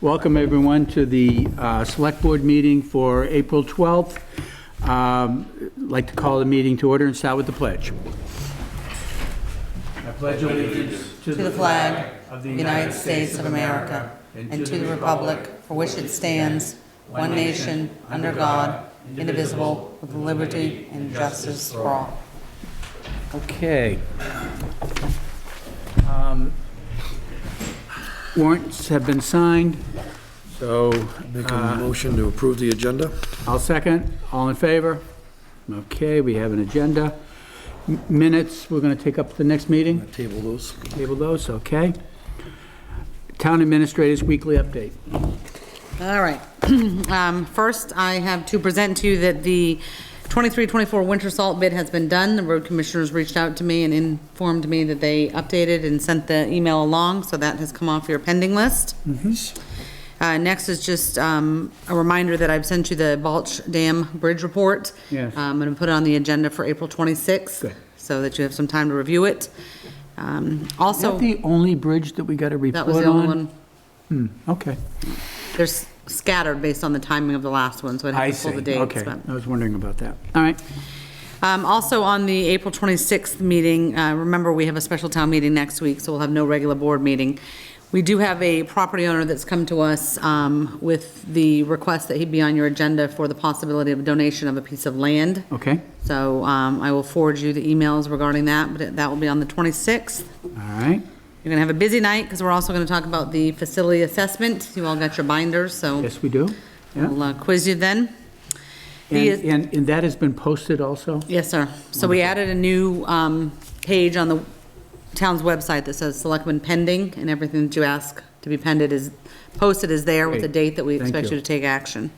Welcome, everyone, to the uh, Select Board meeting for April 12th. Um, I'd Like to call the meeting to order and start with the pledge. I pledge allegiance To the flag of the United States of America and to the republic for which it stands, one nation, under God, indivisible, with liberty and justice for all. Okay. Um, Warrants have been signed, so Make uh, a motion to approve the agenda? I'll second. All in favor? Okay, we have an agenda. M- Minutes, we're going to take up the next meeting. Table those. Table those, okay. Town Administrator's Weekly Update. All right. Um, First, I have to present to you that the 23-24 winter salt bid has been done. The road commissioners reached out to me and informed me that they updated and sent the email along, so that has come off your pending list. Mm-hmm. Uh, Next is just um, a reminder that I've sent you the Balch Dam Bridge Report. Uh, Yes. I'm going to put it on the agenda for April 26th, Good. so that you have some time to review it. Um, Is that Also, the only bridge that we got a report that on? was the only one. Okay. They're s- scattered based on the timing of the last one, so I'd I have to see, pull the dates. okay. but- I was wondering about that. All right, Um, Also, on the April 26th meeting, uh, remember, we have a special town meeting next week, so we'll have no regular board meeting. We do have a property owner that's come to us um, with the request that he be on your agenda for the possibility of donation of a piece of land. okay, So um, I will forward you the emails regarding that, but that will be on the 26th. all right. You're going to have a busy night, because we're also going to talk about the facility assessment. You all got your binders, so Yes, we do. Yeah. I'll uh, quiz you then. And, The- and and that has been posted also? Yes, sir. So we added a new um, page on the town's website that says Selectmen Pending, and everything that you ask to be pended is, posted is there with the Great. date that we Thank expect you. you to take action.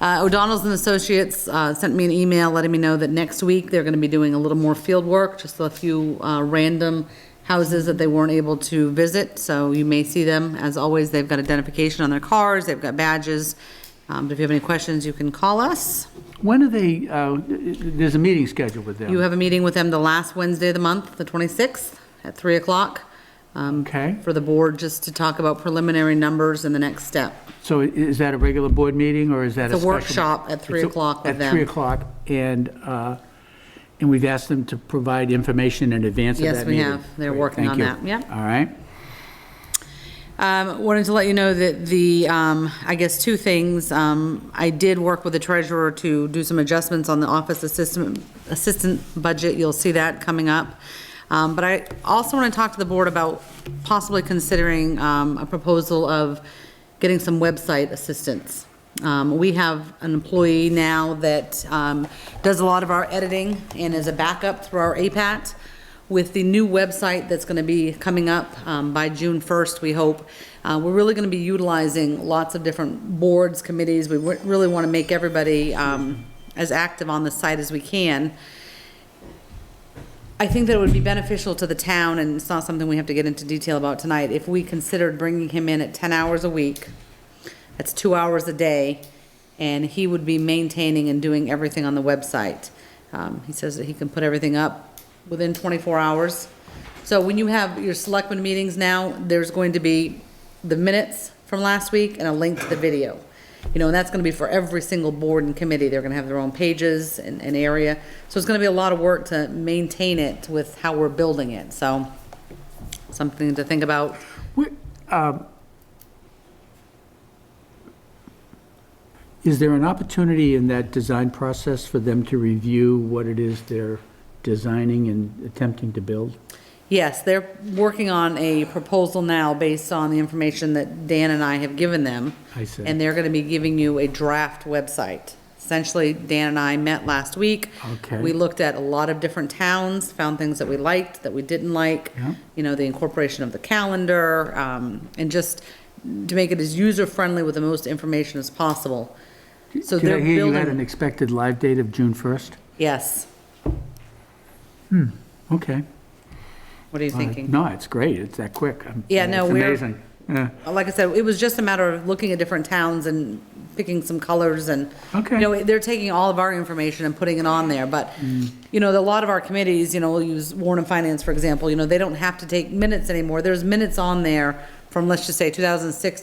Uh, O'Donnell's and Associates uh, sent me an email letting me know that next week they're going to be doing a little more field work, just a few uh, random houses that they weren't able to visit, so you may see them. As always, they've got identification on their cars, they've got badges. Um, But if you have any questions, you can call us. When are they, uh, there's a meeting scheduled with them? You have a meeting with them the last Wednesday of the month, the 26th, at 3 o'clock. um, Okay. For the board, just to talk about preliminary numbers and the next step. So i- is that a regular board meeting, or is that a It's a special? workshop at three It's a- o'clock with At 3 them. o'clock, and, uh, and we've asked them to provide information in advance of Yes, that we meeting? have. They're Great, working thank on you. that. Yep. All right, Um, Wanted to let you know that the, um, I guess, two things. Um, I did work with the treasurer to do some adjustments on the office assistant, assistant budget. You'll see that coming up. Um, But I also want to talk to the board about possibly considering um, a proposal of getting some website assistance. Um, We have an employee now that um, does a lot of our editing and is a backup through our APAT. With the new website that's going to be coming up um, by June 1st, we hope, uh, we're really going to be utilizing lots of different boards, committees. We wa- really want to make everybody um, as active on the site as we can. I think that it would be beneficial to the town, and it's not something we have to get into detail about tonight, if we considered bringing him in at 10 hours a week. That's two hours a day, and he would be maintaining and doing everything on the website. Um, He says that he can put everything up within 24 hours. So when you have your selectmen meetings now, there's going to be the minutes from last week and a link to the video. You know, and that's gonna be for every single board and committee, they're gonna have their own pages and, and area. So it's gonna be a lot of work to maintain it with how we're building it, so something to think about. Where- um, Is there an opportunity in that design process for them to review what it is they're designing and attempting to build? Yes, they're working on a proposal now based on the information that Dan and I have given them. I see. And they're gonna be giving you a draft website. Essentially, Dan and I met last week. Okay. We looked at a lot of different towns, found things that we liked, that we didn't like. Yeah. You know, the incorporation of the calendar, um, and just to make it as user-friendly with the most information as possible. So Did they're I hear you had building. an expected live date of June 1st? Yes, Okay. what are you All right. thinking? Uh, No, it's great. It's that quick. I'm- uh, Yeah, no, It's we're- amazing. Yeah. like I said, it was just a matter of looking at different towns and picking some colors and, Okay. you know, they're taking all of our information and putting it on there, but, Mm. you know, a lot of our committees, you know, we'll use Warren and Finance, for example, you know, they don't have to take minutes anymore. There's minutes on there from, let's just say, 2006 to